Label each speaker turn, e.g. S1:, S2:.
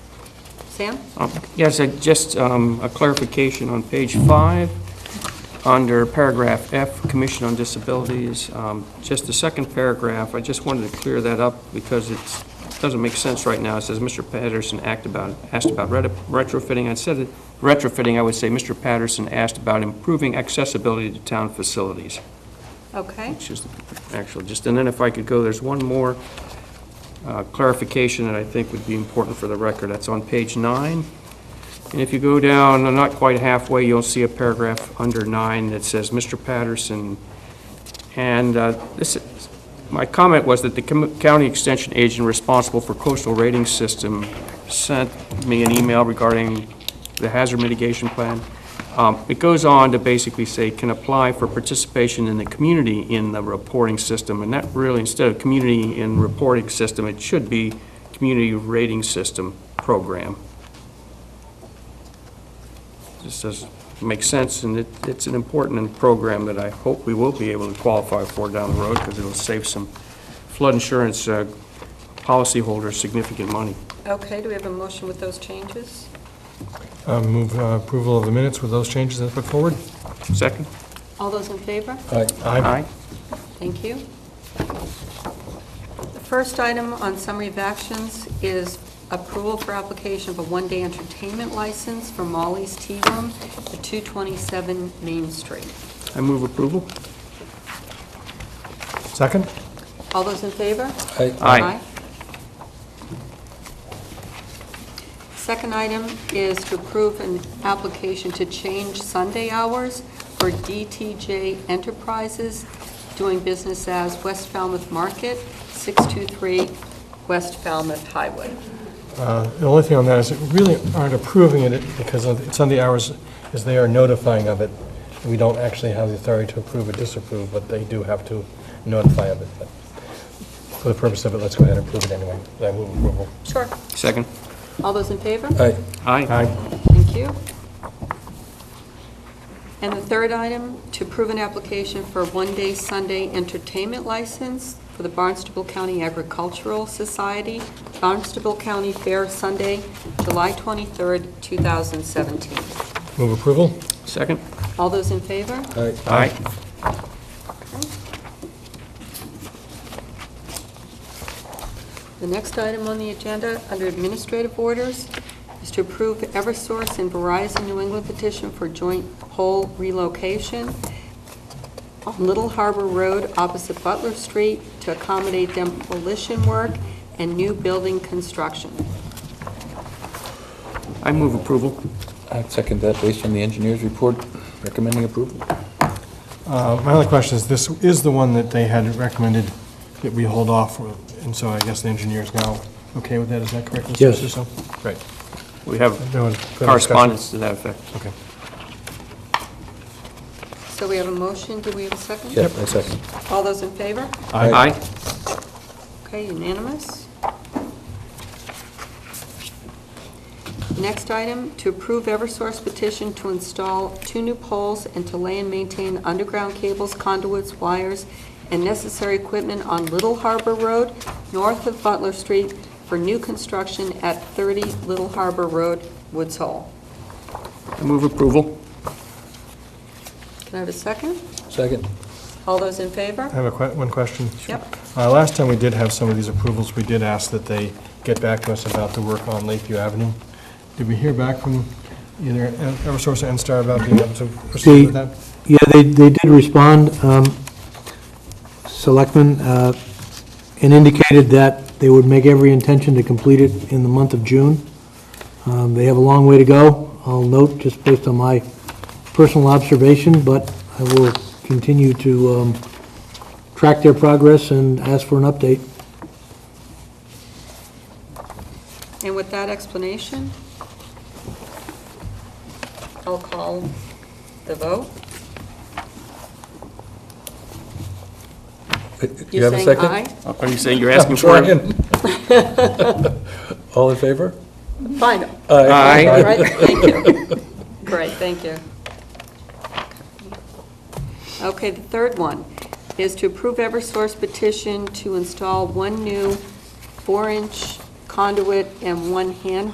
S1: Sam?
S2: Uh, Yes, I- just um, a clarification on page five, under paragraph F, Commission on Disabilities, um, just the second paragraph, I just wanted to clear that up because it's, doesn't make sense right now. It says, "Mr. Patterson act about, asked about ret- retrofitting." I said it- retrofitting, I would say, "Mr. Patterson asked about improving accessibility to town facilities."
S1: Okay.
S2: which is actually just, and then if I could go, there's one more uh, clarification that I think would be important for the record. That's on page nine. And if you go down, uh, not quite halfway, you'll see a paragraph under nine that says, "Mr. Patterson." And uh, this, is- my comment was that the com- county extension agent responsible for coastal rating system sent me an email regarding the hazard mitigation plan. Um, It goes on to basically say, can apply for participation in the community in the reporting system, and that really, instead of community in reporting system, it should be community rating system program. This does make sense, and it, it's an important program that I hope we will be able to qualify for down the road, because it'll save some flood insurance uh, policyholders significant money.
S1: Okay, do we have a motion with those changes?
S3: Uh, Move uh, approval of the minutes with those changes that put forward.
S2: Second?
S1: All those in favor?
S3: Aye.
S1: Thank you. The first item on summary of actions is approval for application of a one-day entertainment license for Molly's Tea Room at 227 Main Street.
S2: I move approval.
S3: Second?
S1: All those in favor?
S2: Aye.
S1: Second item is to approve an application to change Sunday hours for DTJ Enterprises doing business as West Falmouth Market, 623 West Falmouth Highway.
S3: Uh, The only thing on that is that we really aren't approving it because of- it's on the hours, is they are notifying of it. We don't actually have the authority to approve or disapprove, but they do have to notify of it. But For the purpose of it, let's go ahead and approve it anyway. I move approval.
S1: Sure.
S2: Second?
S1: All those in favor?
S3: Aye.
S2: Aye.
S3: Aye.
S1: Thank you. And the third item, to approve an application for a one-day Sunday entertainment license for the Barnstable County Agricultural Society, Barnstable County Fair, Sunday, July 23rd, 2017.
S3: Move approval?
S2: Second?
S1: All those in favor?
S3: Aye.
S2: Aye.
S1: The next item on the agenda, under administrative orders, is to approve Eversource and Verizon New England petition for joint pole relocation on Little Harbor Road opposite Butler Street to accommodate demolition work and new building construction.
S2: I move approval.
S4: I'd second that based on the engineer's report recommending approval.
S3: Uh, My only question is, this is the one that they had recommended that we hold off, and so I guess the engineer's now okay with that, is that correct? Mr.
S4: Yes.
S3: Suso? Great.
S2: We have
S3: No one- further
S2: correspondence to that effect.
S3: Okay.
S1: So we have a motion, do we have a second?
S4: Yep, I second.
S1: All those in favor?
S3: Aye.
S1: Okay, unanimous. Next item, to approve Eversource petition to install two new poles and to lay and maintain underground cables, conduits, wires, and necessary equipment on Little Harbor Road, north of Butler Street, for new construction at 30 Little Harbor Road, Woods Hole.
S2: I move approval.
S1: Can I have a second?
S4: Second.
S1: All those in favor?
S3: I have a que, one question.
S1: Yep.
S3: Uh, Last time we did have some of these approvals, we did ask that they get back to us about the work on Lakeview Avenue. Did we hear back from either En- Eversource or NSTAR about being able to proceed with that?
S5: Yeah, they, they did respond, um, Selectmen, uh, and indicated that they would make every intention to complete it in the month of June. Um, They have a long way to go, I'll note, just based on my personal observation, but I will continue to um, track their progress and ask for an update.
S1: And with that explanation, I'll call the vote.
S4: You have a
S1: You're saying
S4: second?
S1: aye?
S2: Are you saying you're asking for it?
S4: All in favor?
S1: Fine.
S2: Aye.
S1: All right, thank you. Great, thank you. Okay, the third one is to approve Eversource petition to install one new four-inch conduit and one hand